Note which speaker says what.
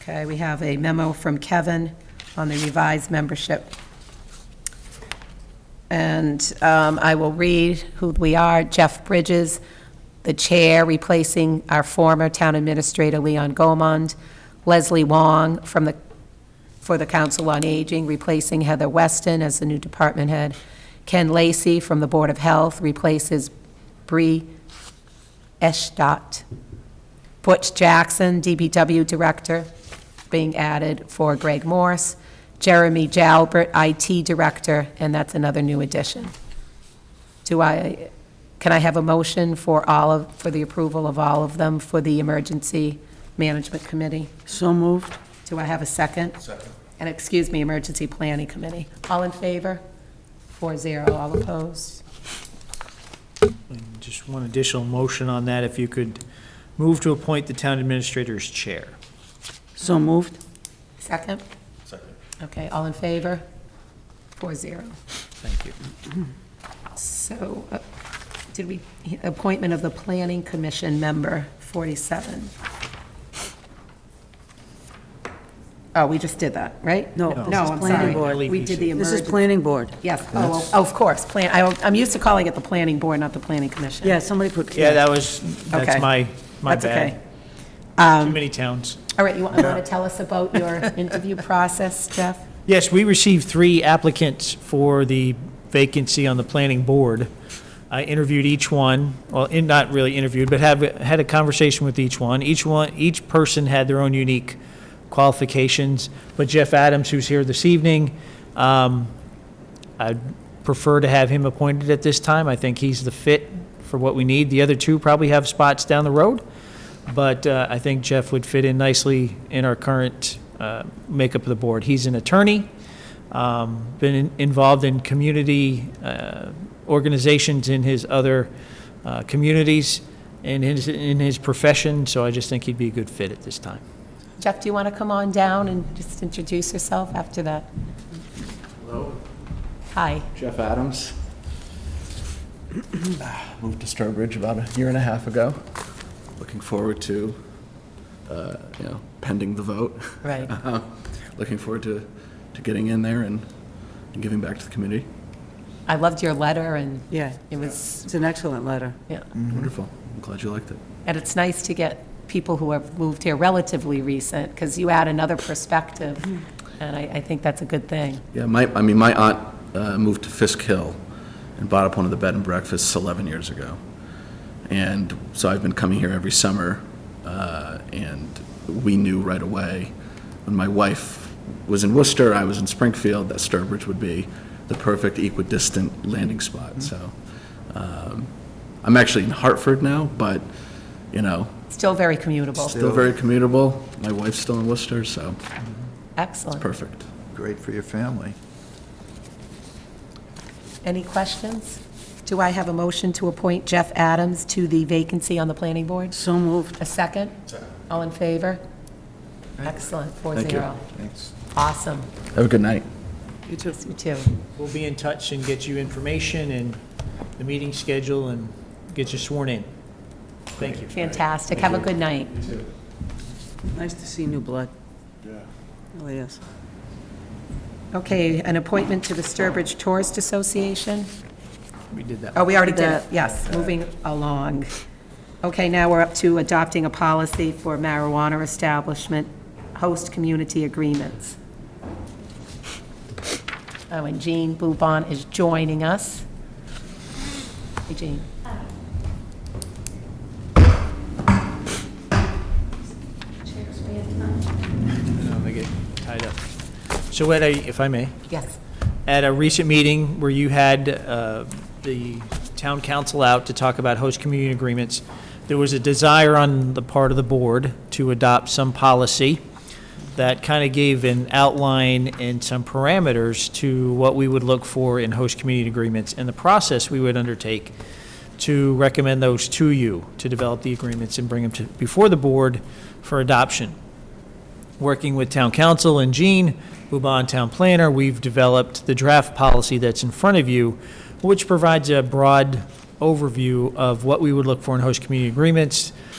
Speaker 1: Okay, we have a memo from Kevin on the revised membership. And um, I will read who we are. Jeff Bridges, the chair, replacing our former town administrator Leon Gomond. Leslie Wong from the, for the Council on Aging, replacing Heather Weston as the new department head. Ken Lacey from the Board of Health replaces Bree Eschdott. Butch Jackson, DPW Director, being added for Greg Morse. Jeremy Jalbert, IT Director, and that's another new addition. Do I, can I have a motion for all of, for the approval of all of them for the Emergency Management Committee?
Speaker 2: So moved.
Speaker 1: Do I have a second? Second. And excuse me, Emergency Planning Committee. All in favor? Four zero, all opposed?
Speaker 3: And Just one additional motion on that, if you could move to appoint the town administrator's chair.
Speaker 2: So moved.
Speaker 1: Second?
Speaker 4: Second.
Speaker 1: Okay, all in favor? Four zero.
Speaker 3: Thank you.
Speaker 1: So, uh, did we, appointment of the Planning Commission member, 47. Oh, we just did that, right?
Speaker 2: No, this
Speaker 1: No,
Speaker 2: is
Speaker 1: I'm
Speaker 2: planning
Speaker 1: sorry.
Speaker 2: board.
Speaker 1: We did the
Speaker 2: This is
Speaker 1: emergency.
Speaker 2: planning board.
Speaker 1: Yes, oh, oh, of course, plan, I- I'm used to calling it the Planning Board, not the Planning Commission.
Speaker 2: Yeah, somebody put.
Speaker 3: Yeah, that was,
Speaker 1: Okay.
Speaker 3: that's my, my
Speaker 1: That's okay. Um,
Speaker 3: bad. Too many towns.
Speaker 1: All right, you want to tell us about your interview process, Jeff?
Speaker 3: Yes, we received three applicants for the vacancy on the planning board. I interviewed each one, well, in- not really interviewed, but have, had a conversation with each one. Each one, each person had their own unique qualifications, but Jeff Adams, who's here this evening, um, I'd prefer to have him appointed at this time. I think he's the fit for what we need. The other two probably have spots down the road, but uh, I think Jeff would fit in nicely in our current uh, makeup of the board. He's an attorney, um, been in- involved in community uh, organizations in his other uh, communities and his, in his profession, so I just think he'd be a good fit at this time.
Speaker 1: Jeff, do you want to come on down and just introduce yourself after that? Hello. Hi.
Speaker 4: Jeff Adams. Moved to Sturbridge about a year and a half ago. Looking forward to, uh, you know, pending the vote.
Speaker 1: Right.
Speaker 4: Looking forward to, to getting in there and, and giving back to the community.
Speaker 1: I loved your letter, and
Speaker 2: Yeah,
Speaker 1: it was,
Speaker 2: it's an excellent letter.
Speaker 1: yeah.
Speaker 4: Wonderful. I'm glad you liked it.
Speaker 1: And it's nice to get people who have moved here relatively recent, because you add another perspective, and I, I think that's a good thing.
Speaker 4: Yeah, my, I mean, my aunt uh, moved to Fisk Hill and bought up one of the bed and breakfasts 11 years ago. And so I've been coming here every summer, uh, and we knew right away, when my wife was in Worcester, I was in Springfield, that Sturbridge would be the perfect equidistant landing spot, so. um, I'm actually in Hartford now, but, you know,
Speaker 1: Still very commutable.
Speaker 4: still very commutable. My wife's still in Worcester, so
Speaker 1: Excellent.
Speaker 4: perfect.
Speaker 5: Great for your family.
Speaker 1: Any questions? Do I have a motion to appoint Jeff Adams to the vacancy on the planning board?
Speaker 2: So moved.
Speaker 1: A second? All in favor? Excellent, four
Speaker 4: Thank you.
Speaker 1: zero.
Speaker 5: Thanks.
Speaker 1: Awesome,
Speaker 4: Have a good night.
Speaker 2: You too.
Speaker 1: you too.
Speaker 3: We'll be in touch and get you information and the meeting schedule and get you sworn in. Thank you.
Speaker 1: Fantastic, have a good night.
Speaker 2: Nice to see new blood. Yeah. Really is.
Speaker 1: Okay, an appointment to the Sturbridge Tourist Association?
Speaker 3: We did that.
Speaker 1: Oh, we already did it,
Speaker 2: that.
Speaker 1: yes, moving along. Okay, now we're up to adopting a policy for marijuana establishment, host community agreements. Oh, and Jean Boubon is joining us. Hey, Jean.
Speaker 3: No, they get tied up. So at a, if I may,
Speaker 1: Yes.
Speaker 3: at a recent meeting where you had uh, the town council out to talk about host community agreements, there was a desire on the part of the board to adopt some policy that kind of gave an outline and some parameters to what we would look for in host community agreements and the process we would undertake to recommend those to you, to develop the agreements and bring them to, before the board for adoption working with town council and Jean, Bouban Town Planner, we've developed the draft policy that's in front of you, which provides a broad overview of what we would look for in host community agreements,